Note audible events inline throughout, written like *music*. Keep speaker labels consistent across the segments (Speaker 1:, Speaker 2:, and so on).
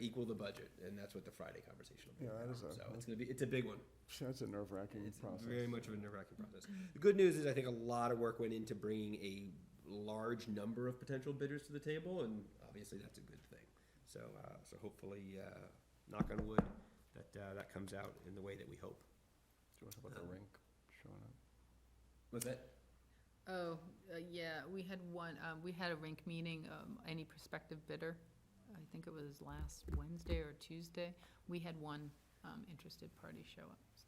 Speaker 1: equal the budget, and that's what the Friday conversation will be.
Speaker 2: Yeah, that is a-
Speaker 1: So it's gonna be, it's a big one.
Speaker 2: That's a nerve wracking
Speaker 1: It's
Speaker 2: process.
Speaker 1: very much of a nerve-wracking process. The good news is I think a lot of work went into bringing a large number of potential bidders to the table, and obviously that's a good thing. So, uh, so hopefully, uh, knock on wood, that, uh, that comes out in the way that we hope.
Speaker 2: Do you want to talk about the rink showing up?
Speaker 1: Was that?
Speaker 3: Oh, uh, yeah, we had one, um, we had a rank meeting, um, any prospective bidder. I think it was last Wednesday or Tuesday. We had one, um, interested party show up,
Speaker 2: *laughs*
Speaker 3: so.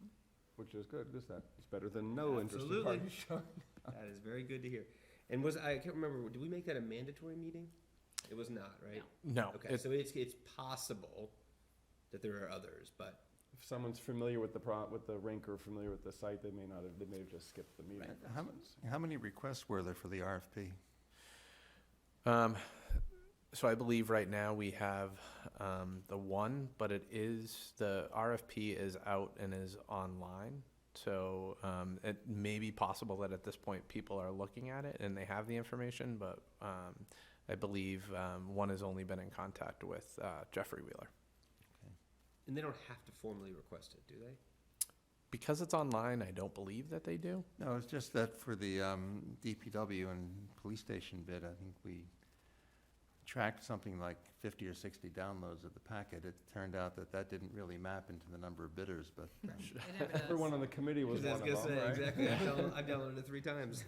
Speaker 2: Which is good, is that, it's better than no interested
Speaker 1: Absolutely.
Speaker 2: party
Speaker 1: *laughs*
Speaker 2: showing.
Speaker 1: That is very good to hear. And was, I can't remember, did we make that a mandatory meeting? It was not, right?
Speaker 4: No,
Speaker 1: Okay,
Speaker 4: it's,
Speaker 1: so it's, it's possible that there are others, but
Speaker 2: If someone's familiar with the pro, with the rink or familiar with the site, they may not have, they may have just skipped the meeting.
Speaker 1: Right.
Speaker 5: How, how many requests were there for the RFP?
Speaker 4: um, so I believe right now we have, um, the one, but it is, the RFP is out and is online. So, um, it may be possible that at this point, people are looking at it and they have the information, but, um, I believe, um, one has only been in contact with, uh, Jeffrey Wheeler.
Speaker 1: And they don't have to formally request it, do they?
Speaker 4: Because it's online, I don't believe that they do.
Speaker 5: No, it's just that for the um, DPW and police station bid, I think we tracked something like 50 or 60 downloads of the packet. It turned out that that didn't really map into the number of bidders, but
Speaker 1: *laughs*
Speaker 5: um,
Speaker 3: It never does.
Speaker 2: Everyone on the committee was one
Speaker 1: I
Speaker 2: of
Speaker 1: was gonna
Speaker 2: them,
Speaker 1: say,
Speaker 2: right?
Speaker 1: exactly. I've downloaded, I've downloaded it three
Speaker 2: *laughs*
Speaker 1: times.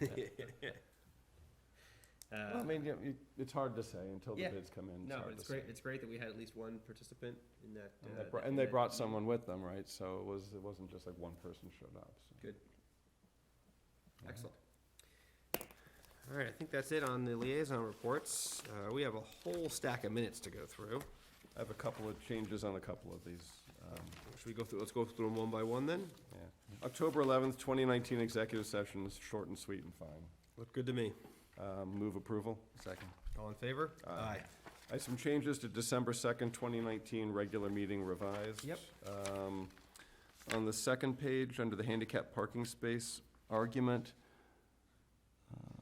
Speaker 2: Well, I
Speaker 1: Uh,
Speaker 2: mean, you know, you- it's hard to say until the
Speaker 1: Yeah.
Speaker 2: bids come in.
Speaker 1: No,
Speaker 2: hard
Speaker 1: but
Speaker 2: to
Speaker 1: it's great,
Speaker 2: say.
Speaker 1: it's great that we had at least one participant in that.
Speaker 2: And
Speaker 1: uh,
Speaker 2: they brought,
Speaker 1: that-
Speaker 2: and they
Speaker 1: that-
Speaker 2: brought someone with them, right? So it was, it wasn't just like one person showed up, so.
Speaker 1: Excellent. All right, I think that's it on the liaison reports. Uh, we have a whole stack of minutes to go through.
Speaker 2: I have a couple of changes on a couple of these, um,
Speaker 1: Should we go through, let's go through them one by one then?
Speaker 2: yeah. October eleventh, twenty nineteen executive session is short and sweet and fine.
Speaker 1: Look good to me.
Speaker 2: Um, Move approval.
Speaker 5: second.
Speaker 1: All in favor?
Speaker 2: Aye. I have some changes to December 2nd, 2019, regular meeting revised.
Speaker 1: Yep.
Speaker 2: Um, On the second page, under the handicap parking space argument, uh,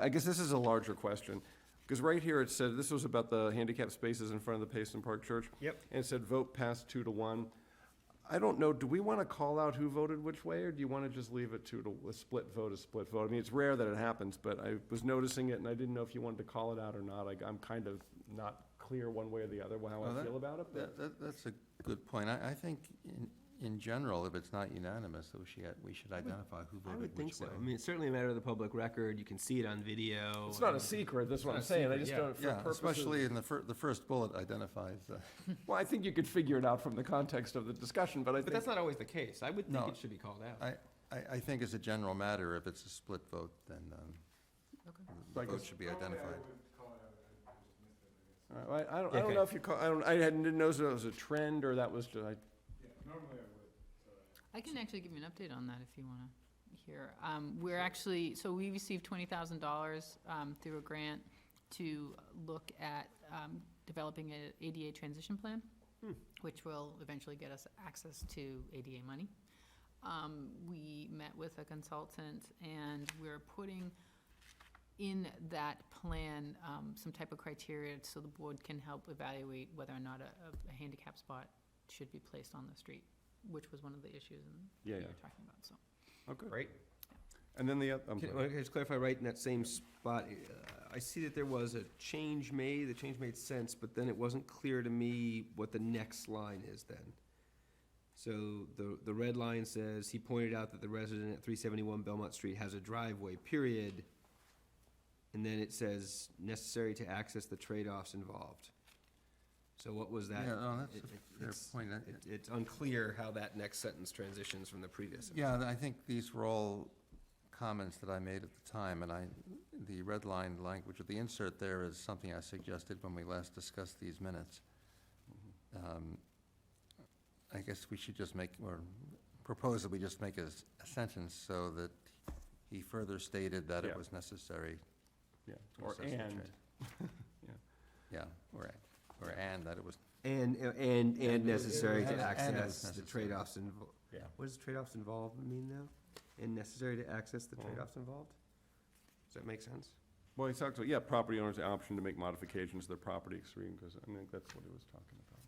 Speaker 2: I I guess this is a larger question, because right here it said, this was about the handicap spaces in front of the Payson Park Church.
Speaker 1: Yep.
Speaker 2: And it said vote passed two to one. I don't know, do we want to call out who voted which way, or do you want to just leave it two to, a split vote, a split vote? I mean, it's rare that it happens, but I was noticing it, and I didn't know if you wanted to call it out or not. I, I'm kind of not clear one way or the other how
Speaker 5: Well,
Speaker 1: Oh,
Speaker 2: I
Speaker 5: that-
Speaker 2: feel about it, but
Speaker 5: That, that, that's a good point. I, I think in, in general, if it's not unanimous, that we should, we should identify who
Speaker 1: I
Speaker 5: voted
Speaker 1: would think
Speaker 5: which
Speaker 1: so.
Speaker 5: way.
Speaker 1: I mean, it's certainly a matter of the public record. You can see it on video.
Speaker 2: it's not a
Speaker 1: and-
Speaker 2: secret, that's what I'm
Speaker 1: It's not a
Speaker 2: saying. I
Speaker 1: secret,
Speaker 2: just
Speaker 1: yeah.
Speaker 2: don't, for
Speaker 5: Yeah,
Speaker 2: purposes.
Speaker 5: especially in the fir, the first bullet identifies, uh,
Speaker 2: Well, I think you could figure it out from the context of the discussion, but I
Speaker 1: But
Speaker 2: think,
Speaker 1: that's not always the case. I would think
Speaker 5: No.
Speaker 1: it should be called out.
Speaker 5: I, I, I think as a general matter, if it's a split vote, then, um, the
Speaker 2: Like a
Speaker 5: vote should be identified.
Speaker 2: All right, well, I I don't, I don't
Speaker 1: Okay.
Speaker 2: know if you call, I don't, I hadn't- didn't know if it was a trend or that was, just- I
Speaker 3: I can actually give you an update on that if you wanna hear. Um, we're actually, so we received twenty thousand dollars, um, through a grant to look at, um, developing a ADA transition plan,
Speaker 1: Hmm.
Speaker 3: which will eventually get us access to ADA money. Um, we met with a consultant and we're putting in that plan, um, some type of criteria so the board can help evaluate whether or not a, a handicap spot should be placed on the street, which was one of the issues in
Speaker 2: yeah,
Speaker 3: we
Speaker 2: yeah.
Speaker 3: were talking about, so.
Speaker 2: Okay.
Speaker 1: Right?
Speaker 2: And then the, oth- I'm
Speaker 1: Can
Speaker 2: sorry.
Speaker 1: can I just clarify, right, in that same spot, uh, I see that there was a change made, the change made sense, but then it wasn't clear to me what the next line is then. So the, the red line says, he pointed out that the resident at three seventy-one Belmont Street has a driveway, period. And then it says, necessary to access the trade-offs involved. So what was that?
Speaker 5: Yeah, no, that's
Speaker 1: It-
Speaker 5: a
Speaker 1: it-
Speaker 5: fair
Speaker 1: it's-
Speaker 5: point. I-
Speaker 1: it- It's unclear how that next sentence transitions from the previous. sentence.
Speaker 5: Yeah, th- I think these were all comments that I made at the time, and I, the red line language, or the insert there is something I suggested when we last discussed these minutes.
Speaker 2: Mm-hmm.
Speaker 5: Um, I guess we should just make, or propose that we just make a, s- a sentence so that he further stated that
Speaker 2: Yeah.
Speaker 5: it was necessary.
Speaker 2: Yeah,
Speaker 5: to
Speaker 2: or
Speaker 5: assess the
Speaker 2: and,
Speaker 5: trade.
Speaker 2: Yeah.
Speaker 5: Yeah, or, or and that it was,
Speaker 1: And, and, and
Speaker 5: And-
Speaker 1: necessary
Speaker 5: and-
Speaker 1: to
Speaker 5: and
Speaker 1: access
Speaker 5: is
Speaker 1: the
Speaker 5: necessary.
Speaker 1: trade-offs involved.
Speaker 2: Yeah.
Speaker 1: What does trade-offs involved mean now? And necessary to access the
Speaker 2: Mhm.
Speaker 1: trade-offs involved? Does that make sense?
Speaker 2: well, he talked about, yeah, property owners the option to make modifications to their property extreme, because I think that's what he was talking about.